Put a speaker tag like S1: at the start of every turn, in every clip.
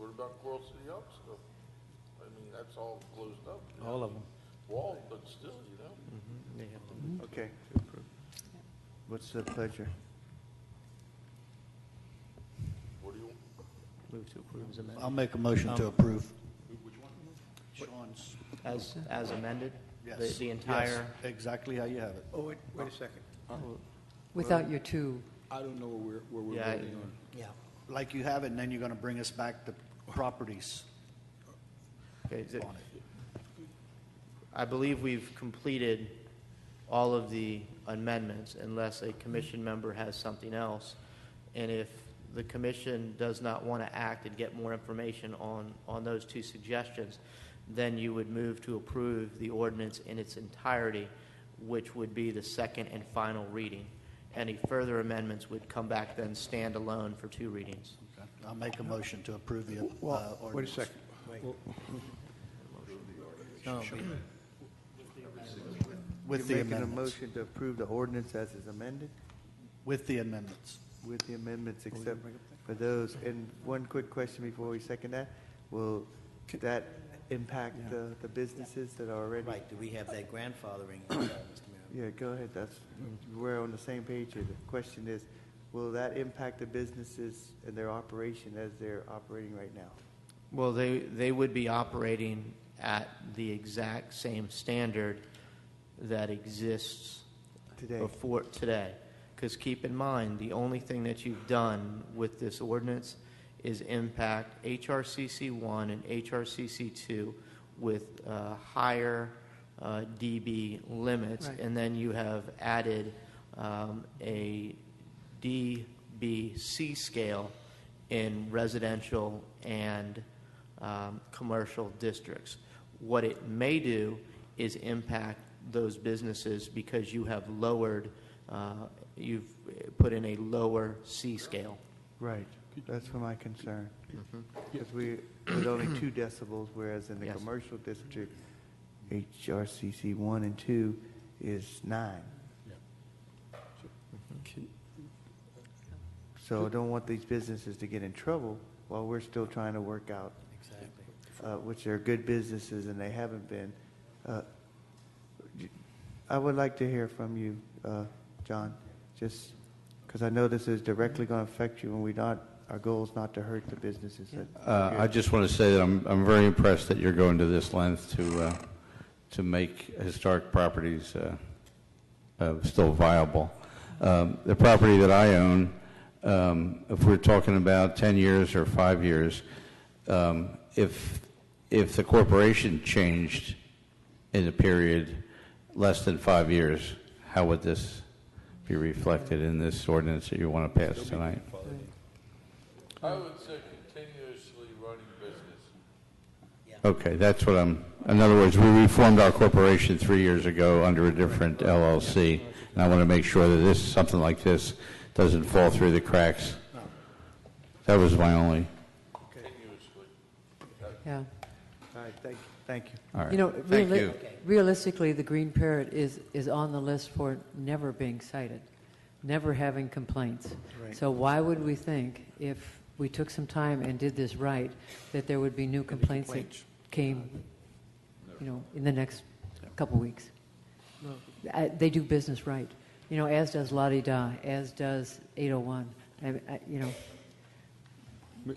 S1: ever done Coral City Hub stuff. I mean, that's all closed up. you know?
S2: All of them.
S1: Walled, but still, you know?
S3: Okay. What's the pleasure?
S1: What do you,
S2: Move to approve as amended.
S4: I'll make a motion
S2: Um,
S4: to approve. Which one? Sean's.
S2: As, as amended? The-
S4: Yes.
S2: The
S4: Yes,
S2: entire,
S4: Exactly how you have it.
S5: Oh, wait, wait a second.
S6: without your two.
S5: I don't know where, where we're
S2: Yeah, I-
S5: voting on.
S4: Yeah. Like you have it, and then you're going to bring us back the properties
S2: okay, is it-
S4: on it.
S2: I believe we've completed all of the amendments unless a commission member has something else. And if the commission does not want to act and get more information on, on those two suggestions, then you would move to approve the ordinance in its entirety, which would be the second and final reading. Any further amendments would come back then stand alone for two readings.
S4: Okay. I'll make a motion to approve the uh,
S5: Well, wait a
S4: ordinance.
S5: second. Well,
S4: No, With the
S3: You're making a
S4: amendments.
S3: motion to approve the ordinance as is amended
S4: With the amendments.
S3: with the
S4: Oh,
S3: amendments except for those. And one quick question before we second that. Will that impact the, the businesses that are already?
S7: Right, do we have that grandfathering, uh, Mr. Mayor?
S3: Yeah, go ahead. That's, we're on the same page here. The question is, will that impact the businesses and their operation as they're operating right now?
S2: Well, they, they would be operating at the exact same standard that exists
S3: Today.
S2: before today. Because keep in mind, the only thing that you've done with this ordinance is impact HRCC one and HRCC two with uh, higher uh, DB limits,
S6: Right.
S2: and then you have added um, a DBC scale in residential and um, commercial districts. What it may do is impact those businesses because you have lowered, uh, you've put in a lower C scale.
S3: Right. That's for my concern. Because we, with only two decibels, whereas in the
S2: Yes.
S3: commercial district, HRCC one and two is nine.
S5: can-
S3: So I don't want these businesses to get in trouble while we're still trying to work out,
S7: Exactly.
S3: uh, which are good businesses and they haven't been. Uh, I would like to hear from you, uh, John, just because I know this is directly going to affect you and we not, our goal is not to hurt the businesses. that-
S8: Uh, I just want to say that I'm, I'm very impressed that you're going to this length to, uh, to make historic properties uh, uh, still viable. Um, The property that I own, um, if we're talking about 10 years or five years, um, if, if the corporation changed in a period less than five years, how would this be reflected in this ordinance that you want to pass tonight?
S1: I would say continuously running business.
S8: Okay, that's what I'm, in other words, we reformed our corporation three years ago under a different LLC, and I want to make sure that this, something like this, doesn't fall through the cracks. That was my only,
S6: Yeah.
S3: All right, thank, thank you.
S8: all right.
S6: You know,
S8: Thank
S6: reali-
S8: you.
S6: realistically, the green parrot is, is on the list for never being cited, never having complaints. So why would we think, if we took some time and did this right, that there would be new complaints that
S5: complaints.
S6: came, you know, in the next couple weeks? I- They do business right, you know, as does La Di Da, as does 801, I- I- you know,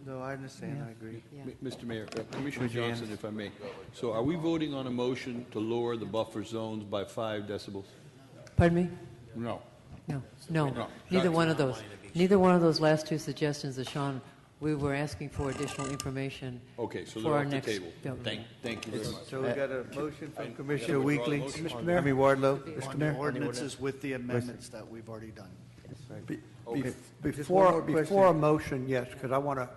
S3: No, I understand, I agree.
S6: yeah.
S5: M- Mr. Mayor, uh, Commissioner Johnson, if I may. So are we voting on a motion to lower the buffer zones by five decibels?
S6: Pardon me?
S5: No.
S6: No, no,
S5: No.
S6: neither one of those, neither one of those last two suggestions that Sean, we were asking for additional information
S5: Okay, so
S6: for
S5: they're
S6: our
S5: off the
S6: next.
S5: table.
S6: bill.
S5: Thank, thank you very much.
S3: So we got a motion from Commissioner
S5: Yeah, we
S3: Weekly.
S5: brought a motion.
S3: Mr. Mayor. I mean Wardlow.
S4: On the ordinances with the amendments that we've alady done.
S9: Be-
S5: Okay.
S9: be-
S3: Just one
S9: Before,
S3: more question.
S9: before a motion, yes, because I want to,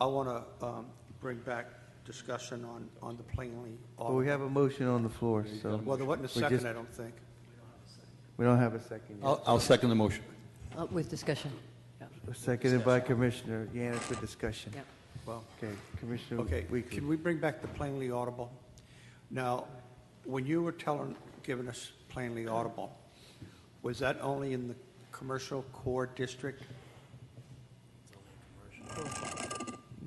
S9: I want to bring back discussion on, on the plainly.
S3: Well, we have a motion on the floor, so
S9: Well, there wasn't a
S3: we just-
S9: second, I don't think.
S3: we don't have a second yet.
S5: I'll, I'll second the motion.
S6: Uh, With discussion, yeah,
S3: Seconded by Commissioner Yanis for discussion.
S6: yeah.
S9: Well,
S3: Okay, Commissioner
S9: okay,
S3: Weekly.
S9: can we bring back the plainly audible? Now, when you were telling, giving us plainly audible, was that only in the commercial core district?